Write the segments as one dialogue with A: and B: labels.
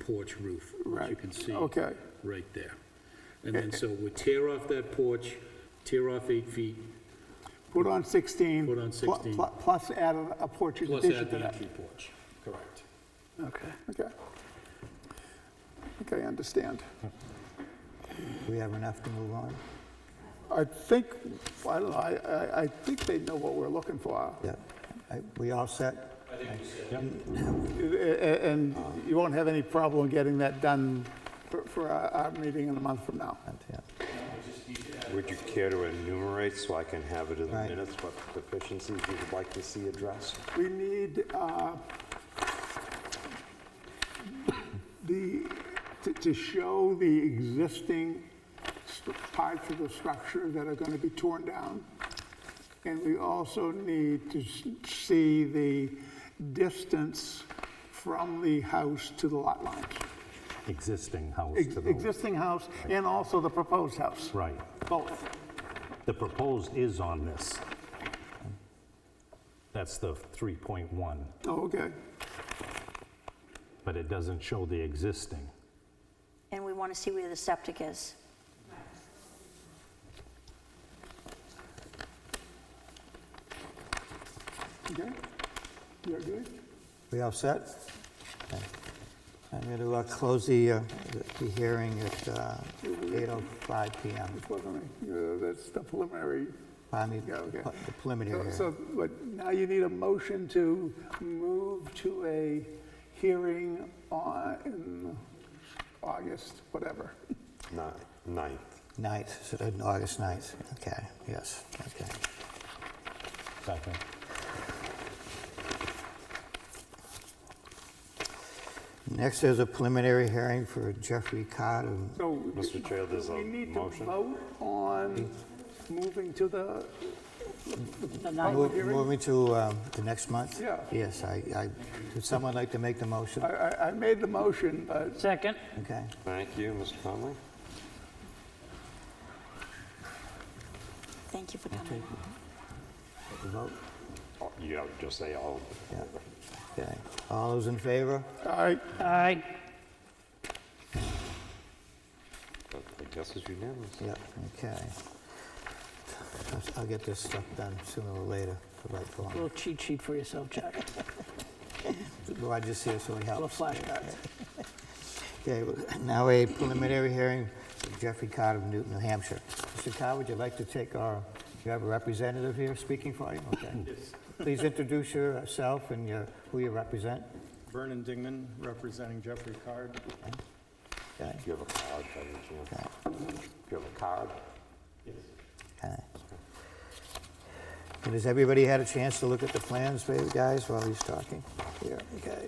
A: porch roof, which you
B: Right,
A: can see
B: okay.
A: right there. And then, so we tear off that porch, tear off eight feet,
B: Put on 16.
A: Put on
B: pl-
A: 16.
B: pl- Plus add a- a porch in
A: plus
B: addition
A: add
B: to
A: the
B: that.
A: entry porch. Correct.
C: Okay.
B: Okay. Okay, I understand.
C: We have enough to move on?
B: I think, I don't know, I, I- I think they know what we're looking for.
C: Yeah. I- We all set?
B: A- And you won't have any problem getting that done for- for our our meeting in a month from now.
C: Yeah.
D: Would you care to enumerate so I can have it in the
C: Right.
D: minutes what deficiencies you would like to see addressed?
B: We need uh, the, to- to show the existing stru- parts of the structure that are going to be torn down. And we also need to s- see the distance from the house to the lot lines.
E: existing house
B: Ex-
E: to the,
B: Existing house and also the proposed house,
E: right.
B: both.
E: The proposed is on this. That's the 3.1,
B: Oh, Okay.
E: but it doesn't show the existing.
F: And we want to see where the septic is.
B: Okay. You're good?
C: We all set? Okay. I'm going to close the, uh, the hearing at uh, 8:05 PM.
B: Well, I mean, uh, That's the preliminary
C: Finally,
B: Yeah, okay.
C: Uh, the preliminary
B: So- So,
C: hearing.
B: but now you need a motion to move to a hearing on in August, whatever.
D: Ni- Ninth.
C: Ninth, so, uh, August 9th, okay, yes, okay.
E: Second.
C: Next is a preliminary hearing for Jeffrey Um, Cott of
B: So.
D: Mr. Chair, there's a
B: We need to
D: motion.
B: vote on moving to the,
C: Move-
B: hearing?
C: Moving to um, the next month?
B: Yeah.
C: Yes, I, I, would someone like to make the motion?
B: I, I- I made the motion, but
G: Second.
C: Okay,
D: Thank you, Mr. Conley.
F: Thank you for coming.
C: the vote,
D: Oh, You have to just say all.
C: yeah, okay. All those in favor?
B: I,
G: Aye.
D: But I guess it's unanimous.
C: Yep, okay. I'll- I'll get this stuff done sooner or later, the right form.
G: Little cheat sheet for yourself, Jack.
C: Roger's here, so he
G: Little
C: helps.
G: flashcards.
C: Okay, well, now a preliminary hearing for Jeffrey Cott of Newton, New Hampshire. Mr. Cott, would you like to take our, you have a representative here speaking for you? Okay. Please introduce yourself and your, who you represent.
H: Vernon Dingman, representing Jeffrey Card.
C: Okay,
D: Do you have a card by any chance? Do you have a card?
C: okay. And has everybody had a chance to look at the plans, baby, guys, while he's talking? Here, okay.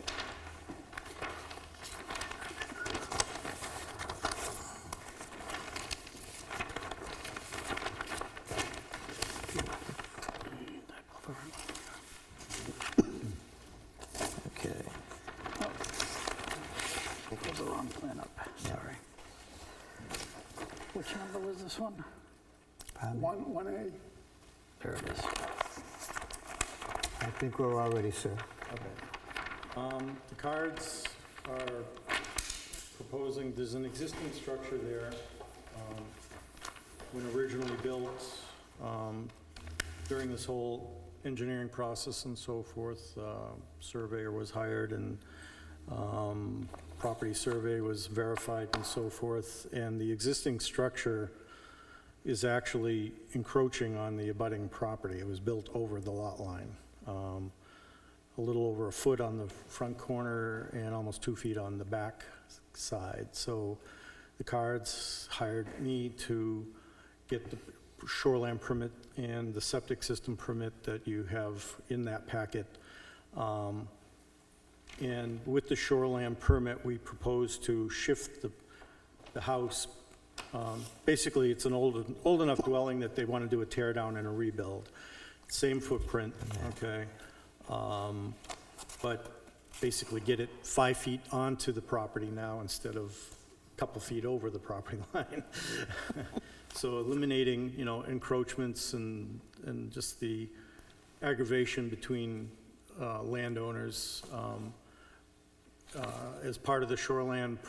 C: Okay.
G: Put the wrong plan up.
C: Sorry.
G: Which number was this one?
B: one, one A.
G: There it is.
C: I think we're all ready, sir.
H: Um, The Cards are proposing, there's an existing structure there. um, When originally built, um, during this whole engineering process and so forth, uh, surveyor was hired and um, property survey was verified and so forth. And the existing structure is actually encroaching on the abutting property. It was built over the lot line. Um, a little over a foot on the front corner and almost two feet on the back side. So the cards hired me to get the shoreline permit and the septic system permit that you have in that packet. Um, And with the shoreline permit, we propose to shift the, the house. um, Basically, it's an old, old enough dwelling that they want to do a tear down and a rebuild. Same footprint, okay? um, But basically get it five feet onto the property now instead of a couple feet over the property line. So eliminating, you know, encroachments and, and just the aggravation between uh, landowners. um, uh, as part of the shoreland